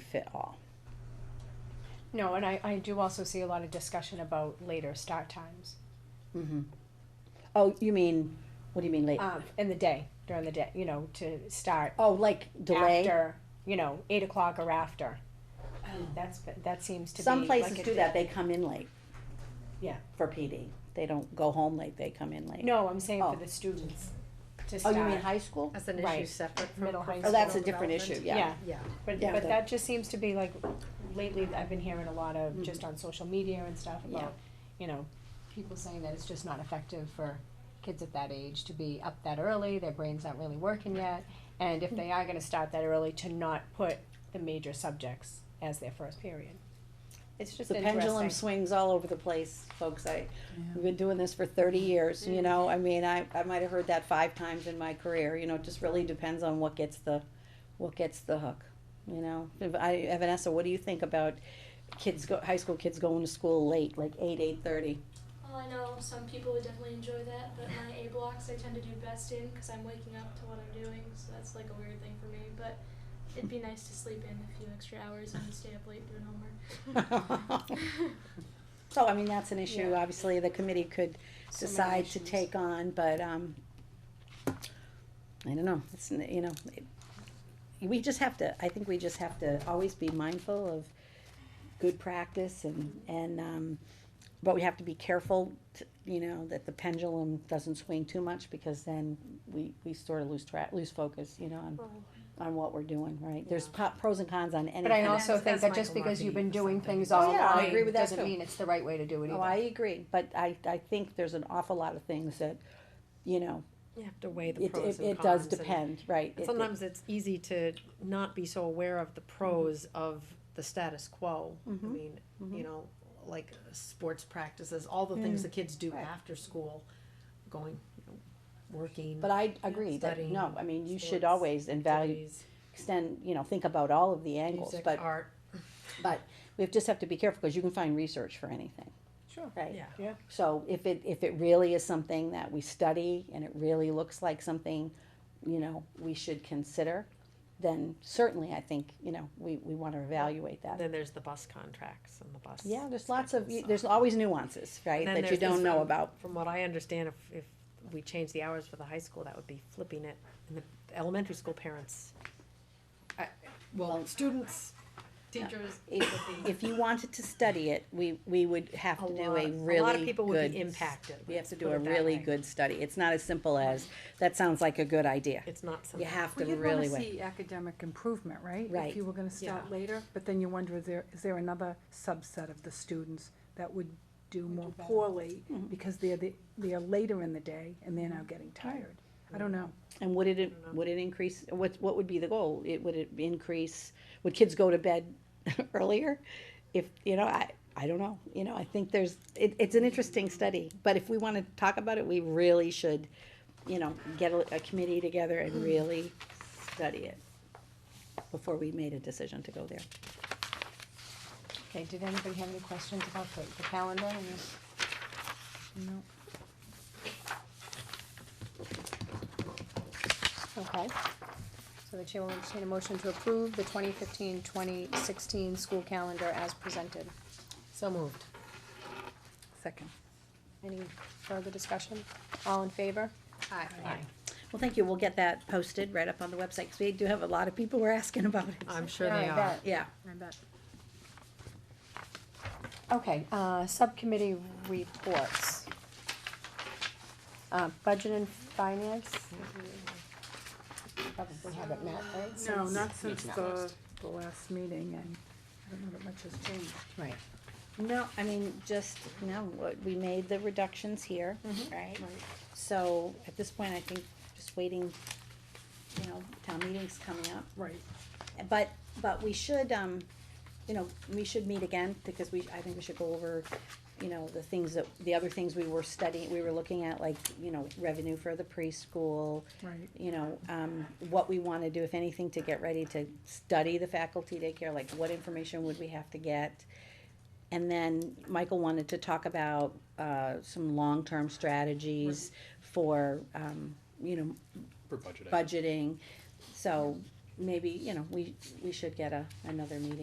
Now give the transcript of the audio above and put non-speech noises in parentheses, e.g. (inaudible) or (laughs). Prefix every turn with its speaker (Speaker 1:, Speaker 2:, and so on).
Speaker 1: fit all.
Speaker 2: No, and I, I do also see a lot of discussion about later start times,
Speaker 1: Mm-hmm. Oh, you mean, what do you mean late?
Speaker 2: um, in the day, during the day, you know, to start
Speaker 1: Oh, like delay?
Speaker 2: after, you know, eight o'clock or after. That's, that seems to be.
Speaker 1: Um, Some
Speaker 2: like
Speaker 1: places
Speaker 2: it-
Speaker 1: do that, they come in late.
Speaker 2: Yeah.
Speaker 1: For PD. They don't go home late, they come in late.
Speaker 2: No, I'm saying
Speaker 1: Oh.
Speaker 2: for the students to
Speaker 1: Oh,
Speaker 2: start.
Speaker 1: you mean high school?
Speaker 3: That's an
Speaker 2: Right.
Speaker 3: issue separate from.
Speaker 2: Middle high
Speaker 1: Oh,
Speaker 3: professional
Speaker 1: that's a different
Speaker 3: development.
Speaker 1: issue, yeah.
Speaker 2: Yeah,
Speaker 3: Yeah,
Speaker 2: but,
Speaker 1: Yeah,
Speaker 2: but
Speaker 1: the-
Speaker 2: that just seems to be like, lately, I've been hearing a lot of, just on social media and stuff
Speaker 1: Yeah.
Speaker 2: about, you know, people saying that it's just not effective for kids at that age to be up that early, their brain's not really working yet, and if they are gonna start that early, to not put the major subjects as their first period. It's just
Speaker 1: The pendulum
Speaker 2: interesting.
Speaker 1: swings all over the place, folks. I, we've been doing this for thirty years,
Speaker 2: Mm.
Speaker 1: you know, I mean, I, I might have heard that five times in my career, you know, it just really depends on what gets the, what gets the hook, you know? If I, Vanessa, what do you think about kids go, high school kids going to school late, like eight, eight-thirty?
Speaker 4: Well, I know some people would definitely enjoy that, but my A blocks I tend to do best in because I'm waking up to what I'm doing, so that's like a weird thing for me. But it'd be nice to sleep in a few extra hours and stay up late doing homework.
Speaker 1: (laughs) So, I mean, that's an issue,
Speaker 2: Yeah.
Speaker 1: obviously, the committee could
Speaker 2: So many
Speaker 1: decide to
Speaker 2: issues.
Speaker 1: take on, but, um, I don't know, it's, n- you know, it- we just have to, I think we just have to always be mindful of good practice and, and, um, but we have to be careful, t- you know, that the pendulum doesn't swing too much, because then we, we sort of lose track, lose focus, you know, on, on what we're doing, right? There's po- pros and cons on anything.
Speaker 2: But I
Speaker 3: And
Speaker 2: also
Speaker 3: that's-
Speaker 2: think
Speaker 3: that's
Speaker 2: that just
Speaker 3: Michael
Speaker 2: because you've
Speaker 3: Markey
Speaker 2: been
Speaker 3: or
Speaker 2: doing
Speaker 3: something.
Speaker 2: things
Speaker 3: Oh,
Speaker 2: all
Speaker 1: yeah, I agree
Speaker 2: online,
Speaker 1: with that
Speaker 2: doesn't
Speaker 1: too.
Speaker 2: mean it's the right way to do it either.
Speaker 1: Oh, I agree, but I, I think there's an awful lot of things that, you know,
Speaker 3: you have to weigh the
Speaker 1: it,
Speaker 3: pros and cons.
Speaker 1: it, it does
Speaker 3: and-
Speaker 1: depend, right?
Speaker 3: and
Speaker 1: It- it-
Speaker 3: Sometimes it's easy to not be so aware of the pros of the status quo. I
Speaker 1: Mhm.
Speaker 3: mean,
Speaker 1: Mhm.
Speaker 3: you know, like sports practices, all the things the kids do
Speaker 1: Mm. Right.
Speaker 3: after school, going, you know, working.
Speaker 1: But I agree that,
Speaker 3: Studying,
Speaker 1: no, I mean, you should
Speaker 3: sports,
Speaker 1: always and value,
Speaker 3: activities,
Speaker 1: extend, you know, think about all of the angles,
Speaker 3: Music,
Speaker 1: but,
Speaker 3: art,
Speaker 1: but we just have to be careful, cause you can find research for anything,
Speaker 2: Sure.
Speaker 1: right?
Speaker 3: yeah.
Speaker 1: So if it, if it really is something that we study and it really looks like something, you know, we should consider, then certainly I think, you know, we, we wanna evaluate that.
Speaker 3: Then there's the bus contracts and the bus.
Speaker 1: Yeah, there's lots of,
Speaker 3: schedules,
Speaker 1: there's
Speaker 3: so.
Speaker 1: always nuances, right,
Speaker 3: And then
Speaker 1: that you
Speaker 3: there's this um,
Speaker 1: don't know
Speaker 3: one-
Speaker 1: about.
Speaker 3: From what I understand, if, if we change the hours for the high school, that would be flipping it, and the elementary school parents. I- Well,
Speaker 1: Well-
Speaker 3: students, teachers.
Speaker 1: If,
Speaker 3: would be-
Speaker 1: if you wanted to study it, we, we would have
Speaker 3: A
Speaker 1: to do
Speaker 3: lot-
Speaker 1: a
Speaker 3: a
Speaker 1: really good.
Speaker 3: lot of people would be impacted,
Speaker 1: We have
Speaker 3: let's
Speaker 1: to do
Speaker 3: put
Speaker 1: a
Speaker 3: it that
Speaker 1: really
Speaker 3: way.
Speaker 1: good study. It's not as simple as, that sounds like a good idea.
Speaker 3: It's not
Speaker 1: You
Speaker 3: something.
Speaker 1: have to
Speaker 5: Well, you'd
Speaker 1: really
Speaker 5: wanna
Speaker 1: wait.
Speaker 5: see academic improvement, right?
Speaker 1: Right.
Speaker 5: If you were gonna start
Speaker 3: Yeah.
Speaker 5: later, but then you wonder, is there, is there another subset of the students that would do more
Speaker 2: better.
Speaker 5: poorly? Because they're, the- they're later in the day and they're now getting tired. I don't know.
Speaker 1: And would it, would it increase, what, what would be the goal? It, would it increase, would kids go to bed (laughs) earlier? If, you know, I, I don't know, you know, I think there's, it, it's an interesting study, but if we wanna talk about it, we really should, you know, get a, a committee together and really study it before we made a decision to go there.
Speaker 2: Okay, did anybody have any questions about the, the calendar and the
Speaker 5: No.
Speaker 2: Okay. So the chair will entertain a motion to approve the 2015-2016 school calendar as presented.
Speaker 3: So moved.
Speaker 5: Second.
Speaker 2: Any further discussion? All in favor?
Speaker 3: Aye.
Speaker 1: Well, thank you, we'll get that posted right up on the website, cause we do have a lot of people who are asking about it.
Speaker 3: I'm sure
Speaker 2: Yeah, I
Speaker 3: they are.
Speaker 2: bet.
Speaker 1: Yeah.
Speaker 3: I bet.
Speaker 2: Okay, uh, subcommittee reports. Uh, budget and finance? Probably haven't met, right?
Speaker 5: No,
Speaker 2: since-
Speaker 5: not since
Speaker 2: No.
Speaker 5: the, the last meeting and I don't know that much has changed.
Speaker 2: Right.
Speaker 1: No, I mean, just, no, what- we made the reductions here, right? So at this point, I think just waiting, you know, town meeting's coming up.
Speaker 5: Right.
Speaker 1: But, but we should, um, you know, we should meet again because we, I think we should go over, you know, the things that, the other things we were studying, we were looking at, like, you know, revenue for the preschool,
Speaker 5: Right.
Speaker 1: you know, um, what we wanna do, if anything, to get ready to study the faculty daycare, like what information would we have to get? And then Michael wanted to talk about, uh, some long-term strategies for, um, you know,
Speaker 6: For budgeting.
Speaker 1: budgeting. So maybe, you know, we, we should get a, another meeting.